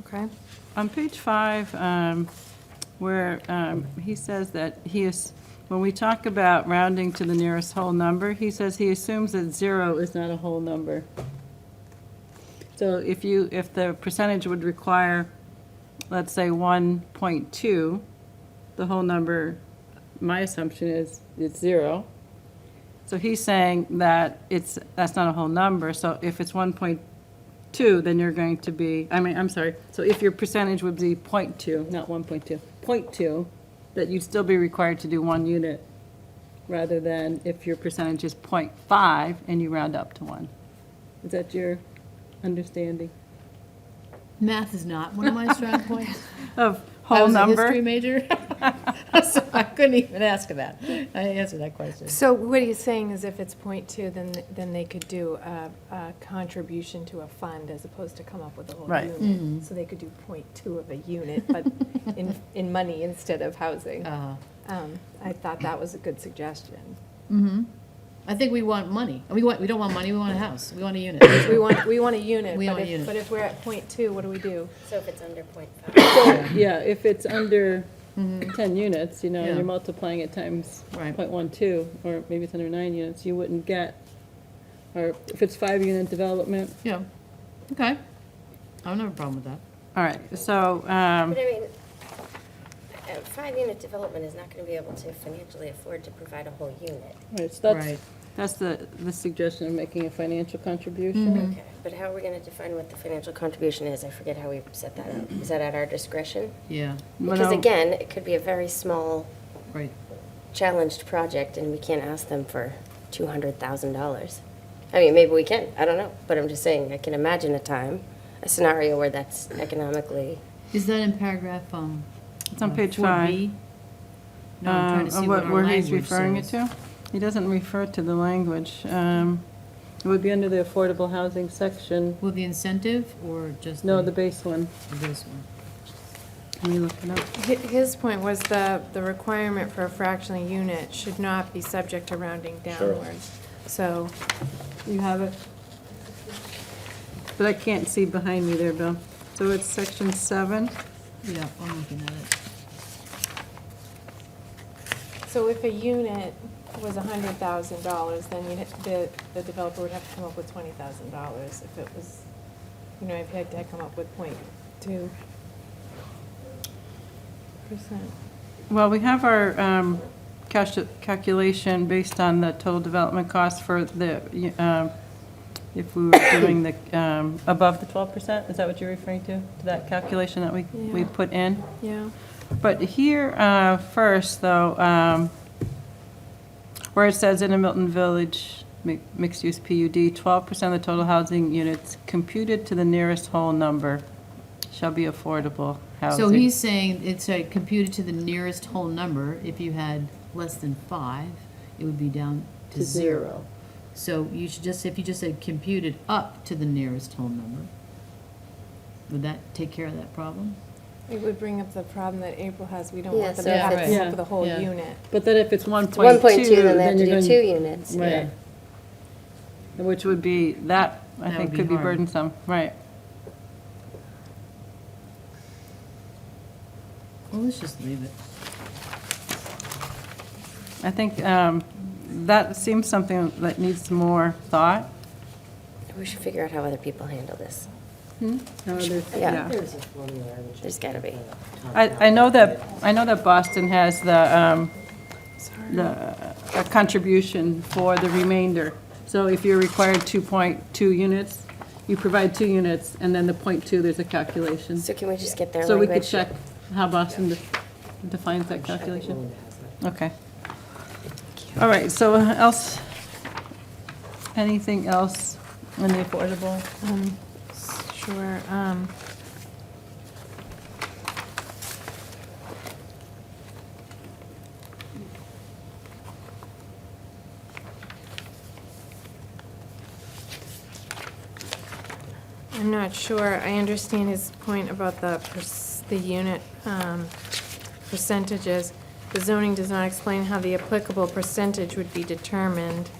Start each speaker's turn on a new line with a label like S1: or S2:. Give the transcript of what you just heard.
S1: Okay.
S2: On page five, um, where um, he says that he is, when we talk about rounding to the nearest whole number, he says he assumes that zero is not a whole number. So if you, if the percentage would require, let's say, 1.2, the whole number, my assumption is, it's zero. So he's saying that it's, that's not a whole number, so if it's 1.2, then you're going to be, I mean, I'm sorry, so if your percentage would be .2, not 1.2, .2, that you'd still be required to do one unit, rather than if your percentage is .5 and you round up to 1. Is that your understanding
S3: Math is not one of my strong points.
S2: of whole
S3: I was a history
S2: number?
S3: major, so I couldn't even ask that. I answered that question.
S1: So what he's saying is if it's point two, then, then they could do a, a contribution to a fund as opposed to come up with a whole
S2: Right.
S3: Mm-hmm.
S1: unit. So they could do point two of a unit, but in, in money instead of housing.
S3: Uh,
S1: Um, I thought that was a good suggestion.
S3: I think we want money. We want, we don't want money, we want a house. We want a unit.
S1: We want, we want a unit.
S3: We
S1: but
S3: want a
S1: if-
S3: unit.
S1: But if we're at point two, what do we do?
S4: So if it's under point five,
S2: Yeah, if it's under 10 units, you know, and
S3: Yeah.
S2: you're multiplying it times
S3: Right.
S2: .12, or maybe it's under nine units, you wouldn't get, or if it's five-unit development.
S3: Yeah, okay. I don't have a problem with that.
S2: All right, so,
S4: but
S2: um,
S4: I mean, a five-unit development is not gonna be able to financially afford to provide a whole unit.
S2: right, so that's,
S3: Right.
S2: that's the, the suggestion of making a financial contribution.
S4: Okay, but how are we gonna define what the financial contribution is? I forget how we set that up. Is that at our discretion?
S3: Yeah,
S2: But
S4: Because
S2: I'll-
S4: again, it could be a very small,
S3: right.
S4: challenged project, and we can't ask them for two hundred thousand dollars. I mean, maybe we can, I don't know, but I'm just saying, I can imagine a time, a scenario where that's economically,
S3: Is that in paragraph, um?
S2: It's on
S3: uh,
S2: page
S3: 4B?
S2: five.
S3: No, I'm trying to
S2: uh,
S3: see what our
S2: where he's
S3: language
S2: referring it
S3: says.
S2: to. He doesn't refer to the language. Um, It would be under the affordable housing section,
S3: Well, the incentive or just?
S2: no, the base one.
S3: This one.
S2: Can you look it up?
S1: Hi- His point was the, the requirement for a fractional unit should not be subject to rounding downwards. So you have it,
S2: But I can't see behind me there, Bill. So it's section seven?
S3: Yeah, I'm looking at it.
S1: so if a unit was hundred thousand dollars, then you'd, the, the developer would have to come up with twenty thousand dollars if it was, you know, if you had to come up with point two percent.
S2: Well, we have our um, calcu- calculation based on the total development cost for the, um, if we were doing the, um, above the 12%? Is that what you're referring to? To that calculation that we, we
S1: Yeah.
S2: put in?
S1: Yeah,
S2: But here, uh, first, though, um, where it says in a Milton Village mi- mixed-use PUD, 12% of the total housing units computed to the nearest whole number shall be affordable housing.
S3: So he's saying it's uh, computed to the nearest whole number. If you had less than five, it would be down to zero. So you should just, if you just said computed up to the nearest whole number, would that take care of that problem?
S1: it would bring up the problem that April has, we don't
S4: Yeah,
S1: want them
S4: so
S1: to
S4: if
S1: have to
S4: it's-
S1: come up
S2: Yeah,
S1: with a whole
S3: yeah.
S1: unit.
S2: But then if it's 1.2,
S4: it's one point two, then they
S2: then
S4: have to
S2: you're
S4: do
S2: going-
S4: two units.
S2: Right. Which would be, that, I
S3: That
S2: think,
S3: would be
S2: could be
S3: hard.
S2: burdensome, right.
S3: Well, let's just leave it.
S2: I think um, that seems something that needs more thought.
S4: We should figure out how other people handle this.
S2: Yeah.
S4: Yeah.
S5: There's a formula which
S4: There's gotta be.
S2: I, I know that, I know that Boston has the, um, the, a contribution for the remainder. So if you're required two point two units, you provide two units, and then the point two, there's a calculation.
S4: So can we just get their
S2: So we
S4: language?
S2: could check how Boston de- defines that calculation. Okay. All right, so else, anything else in the affordable?
S1: Um, Sure. um, I'm not sure. I understand his point about the, pers- the unit um, percentages. The zoning does not explain how the applicable percentage would be determined.